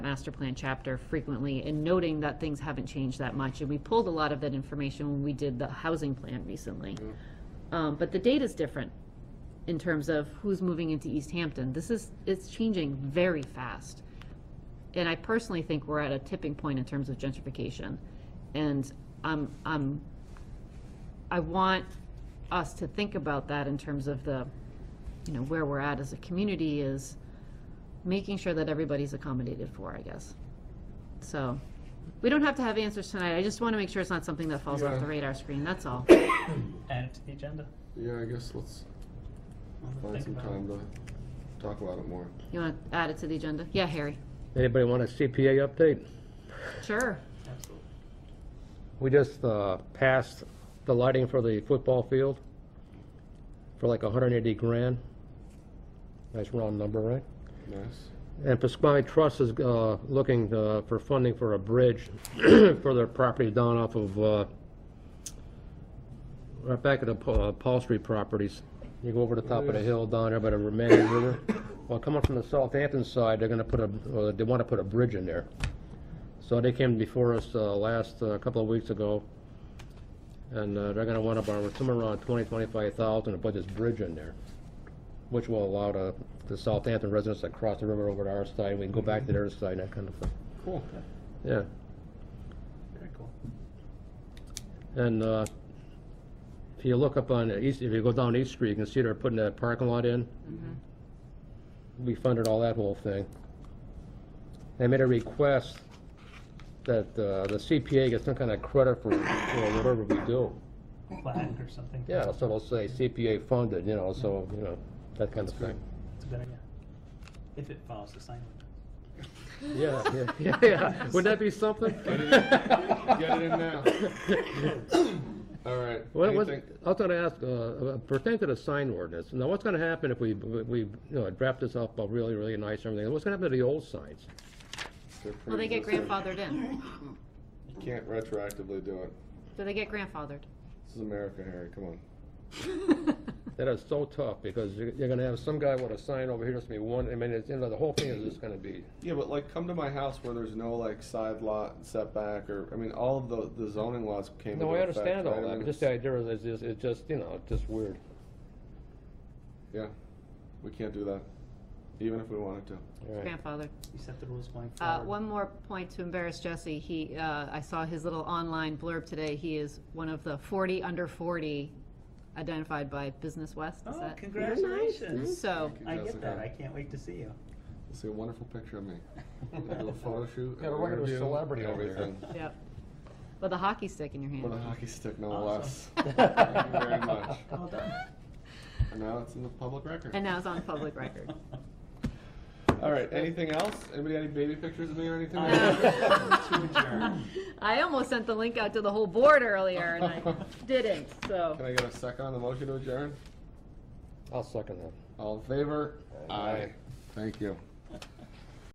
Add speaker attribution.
Speaker 1: master plan chapter frequently and noting that things haven't changed that much. And we pulled a lot of that information when we did the housing plan recently. Um, but the data's different in terms of who's moving into East Hampton. This is, it's changing very fast. And I personally think we're at a tipping point in terms of gentrification. And I'm, I'm, I want us to think about that in terms of the, you know, where we're at as a community is making sure that everybody's accommodated for, I guess. So, we don't have to have answers tonight. I just want to make sure it's not something that falls off
Speaker 2: Yeah.
Speaker 1: the radar screen, that's all.
Speaker 3: add it to the agenda.
Speaker 2: Yeah, I guess let's find
Speaker 3: Think
Speaker 2: some
Speaker 3: about it.
Speaker 2: time to talk about it more.
Speaker 1: You want to add it to the agenda? Yeah, Harry.
Speaker 4: Anybody want a CPA update?
Speaker 1: Sure.
Speaker 3: Absolutely.
Speaker 4: We just uh, passed the lighting for the football field for like 180 grand. Nice round number, right?
Speaker 2: Nice.
Speaker 4: And Pasquale Trust is uh, looking uh, for funding for a bridge for their property down off of, uh, right back at the Pa- uh, Paul Street properties. You go over the top of the hill down there by the Remanian River. Well, coming from the Southampton side, they're gonna put a, uh, they wanna put a bridge in there. So they came before us uh, last, a couple of weeks ago, and uh, they're gonna wanna borrow somewhere around 20, 25,000 to put this bridge in there which will allow the, the Southampton residents that cross the river over to our side, we can go back to their side, that kind of thing.
Speaker 2: Cool.
Speaker 4: Yeah,
Speaker 3: Very cool.
Speaker 4: and, uh, if you look up on the East, if you go down East Street, you can see they're putting that parking lot in. We funded all that whole thing. They made a request that, uh, the CPA gets some kind of credit for, for whatever we do.
Speaker 3: Plaque or something.
Speaker 4: Yeah, so they'll say CPA funded, you know, so, you know, that kind of thing.
Speaker 3: It's a good idea. If it follows the sign language.
Speaker 4: Yeah, yeah, yeah, yeah, wouldn't that be something?
Speaker 2: Get it in now. All right.
Speaker 4: Well, what,
Speaker 2: anything-
Speaker 4: I was gonna ask, uh, pertaining to the sign ordinance, now what's gonna happen if we, we, you know, draft this up uh, really, really nice and everything, what's gonna happen to the old signs?
Speaker 2: they're
Speaker 1: Well, they get
Speaker 2: pre-existing.
Speaker 1: grandfathered in.
Speaker 2: You can't retroactively do it.
Speaker 1: Do they get grandfathered?
Speaker 2: This is America, Harry. Come on.
Speaker 4: That is so tough, because you're, you're gonna have some guy with a sign over here, that's gonna be one, I mean, it's, you know, the whole thing is just gonna be,
Speaker 2: Yeah, but like, come to my house where there's no like side lot setback or I mean, all of the the zoning laws came.
Speaker 4: no,
Speaker 2: into
Speaker 4: I
Speaker 2: effect,
Speaker 4: understand all
Speaker 2: right? I
Speaker 4: that,
Speaker 2: mean,
Speaker 4: but just the idea is, it's just, it's just, you know, it's just weird.
Speaker 2: Yeah, we can't do that, even if we wanted to.
Speaker 4: All right.
Speaker 1: Grandfathered.
Speaker 3: You set the rules going
Speaker 1: Uh,
Speaker 3: forward.
Speaker 1: one more point to embarrass Jesse. He, uh, I saw his little online blurb today. He is one of the forty under forty identified by Business West. Is
Speaker 3: Oh,
Speaker 1: that?
Speaker 3: congratulations.
Speaker 1: So,
Speaker 2: Thank you,
Speaker 3: I get
Speaker 2: Jessica.
Speaker 3: that. I can't wait to see you.
Speaker 2: You'll see a wonderful picture of me. I'm gonna do a photo shoot.
Speaker 4: Yeah,
Speaker 2: an
Speaker 4: we're regular
Speaker 2: interview,
Speaker 4: celebrity over here.
Speaker 2: Everything.
Speaker 1: yep. With a hockey stick in your
Speaker 2: With a
Speaker 1: hand.
Speaker 2: hockey stick, no less.
Speaker 3: Awesome.
Speaker 2: Thank you very much.
Speaker 3: Well done.
Speaker 2: And now it's in the public record.
Speaker 1: And now it's on public record.
Speaker 2: All right. Anything else? Anybody got any baby pictures of me or anything?
Speaker 1: I almost sent the link out to the whole board earlier and I didn't, so.
Speaker 2: Can I get a second on the motion to adjourn?
Speaker 4: I'll second that.
Speaker 2: All in favor?
Speaker 4: Aye.
Speaker 2: Thank you.